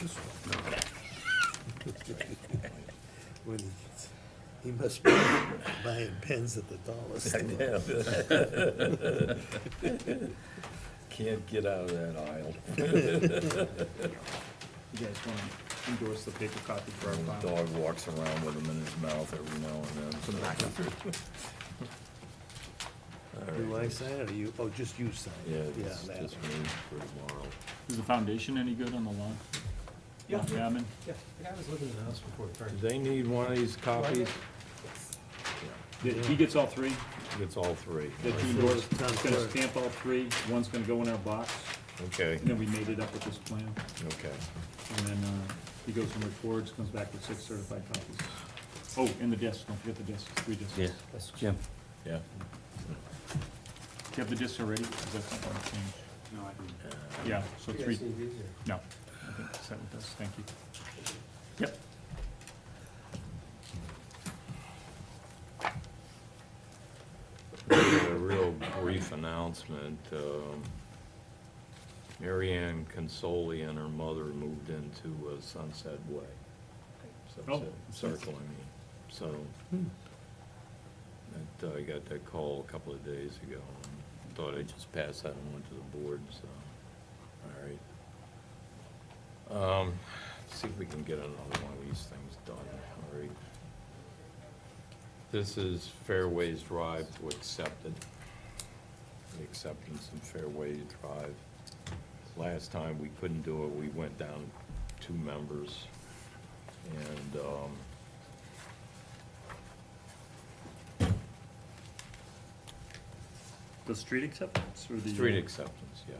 this one? When he gets- He must be buying pens at the dollar I store. know. Can't get out of that aisle. You guys want to endorse the paper copy for our The file? dog walks around with them in his mouth every now and then. Do I sign it or you, oh, just you sign Yeah, it? it's that just one. me for tomorrow. Is the foundation any good on the lawn? Yeah. Lawn Gammon? Yeah, the guy was living in the house before he turned. They need one of these copies, Yeah, Did- He gets all three, It's all three. that he endorsed, he's gonna stamp all three, one's gonna go in our box, Okay, and then we made it up with this plan. okay. And then, uh, he goes and records, comes back with six certified copies. Oh, and the disc, don't forget the disc, three discs. Do Jim. Yeah. you have the discs already? Is that something that changed? Uh, No, I didn't. Yeah, so You three, guys need these or? no, I think it's that with us, thank you. Yep, A real brief announcement. um, Mary Ann Consoli and her mother moved into uh, Sunset Way. Oh. Sunset Circle, I mean. So, that, uh, I got that call a couple of days ago. and Thought I'd just pass that on to the board, so, all right. Um, See if we can get another one of these things done, all right? This is Fairways Drive to accept it. The acceptance of Fairways Drive. Last time we couldn't do it, we went down two members. And, um, the street acceptance or the? uh, street acceptance, yes.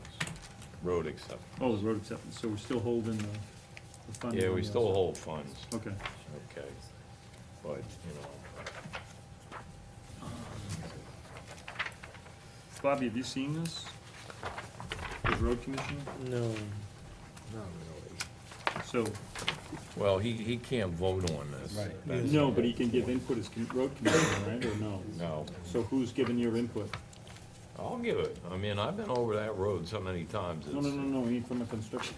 Road acceptance. Oh, the road acceptance, so we're still holding the, the fund. Yeah, we on the still outside. hold funds, Okay, okay. But, you know, Bobby, have you seen this? The road commissioner? No, not really. So, uh, well, he, he can't vote on this. Right. That's- no, but he can give input as com- road commissioner, right, or no? No. So who's giving your input? I'll give it. I mean, I've been over that road so many times. No, no, no, no, he from the construction.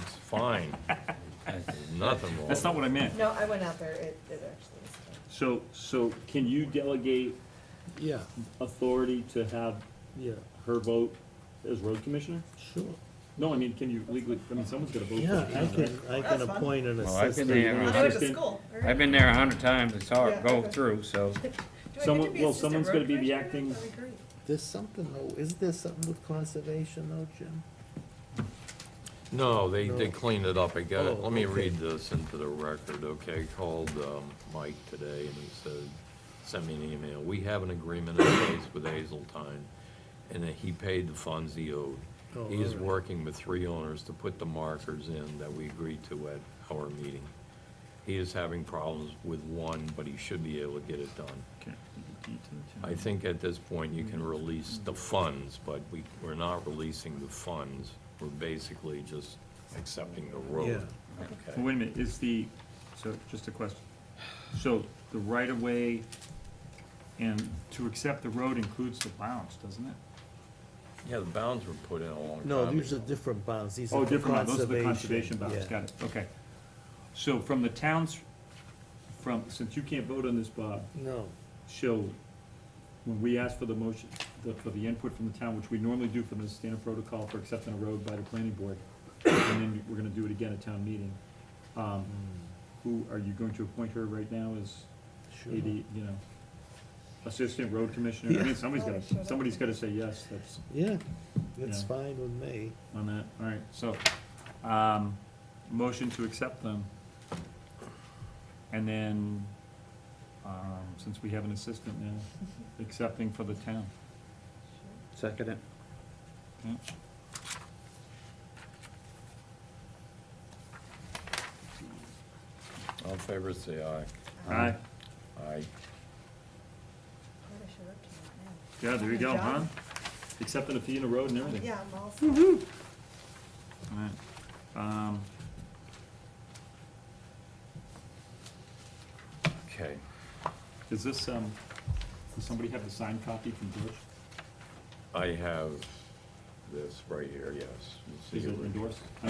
It's fine. There's Nothing wrong. That's not what I meant. No, I went out there, it, it actually is. fine. So, so can you delegate Yeah, authority to have yeah, her vote as road commissioner? sure. No, I mean, can you legally, I mean, someone's gotta vote. for Yeah, it, I right? can, I can appoint an Well, I've been assistant. there. I'll Yeah. do it to Assistant- school. all right. I've been there a hundred times, I saw it Yeah, go okay. through, so. Do I get to someone- be well, assistant someone's road gonna be the commissioner? acting- That'd be great. There's something, though, isn't there something with conservation though, Jim? No, they, they No. cleaned it up. I got it. Oh, Let me okay. read this into the record, okay? Called, um, Mike today and he said, sent me an email. We have an agreement in place with Hazeltine and that he paid the funds he owed. Oh, He is all right. working with three owners to put the markers in that we agreed to at our meeting. He is having problems with one, but he should be able to get it done. Okay. DD to the town. I think at this point, you can release the funds, but we, we're not releasing the funds. We're basically just accepting the road. Well, Wait a minute, is the, so, just a question. So, the right-of-way and to accept the road includes the bounds, doesn't it? Yeah, the bounds were put in a long time ago. No, these are different bounds, these are Oh, for different, bounds. conservation. those are the conservation bounds, yeah. got it, okay. So from the towns, from, since you can't vote on this, Bob, No, so when we ask for the motion, the- for the input from the town, which we normally do from the standard protocol for accepting a road by the planning board, and then we're gonna do it again at town meeting, um, who, are you going to appoint her right now as sure. AD, you know, assistant road commissioner? I mean, somebody's Yeah. gotta, somebody's gotta say yes, that's Yeah, that's Yeah. fine with me. on that, all right, so, um, motion to accept them. And then, um, since we have an assistant now, accepting for the town. Second it. yeah. All in favor, say Um, aye. Aye. Aye, Glad I showed up to that, man. yeah, there you go, huh? Accepting a fee in the road and everything. Yeah, I'm all set. All right, um, Okay. is this, um, does somebody have the signed copy from George? I have this right here, yes. You see Is it endorsed? I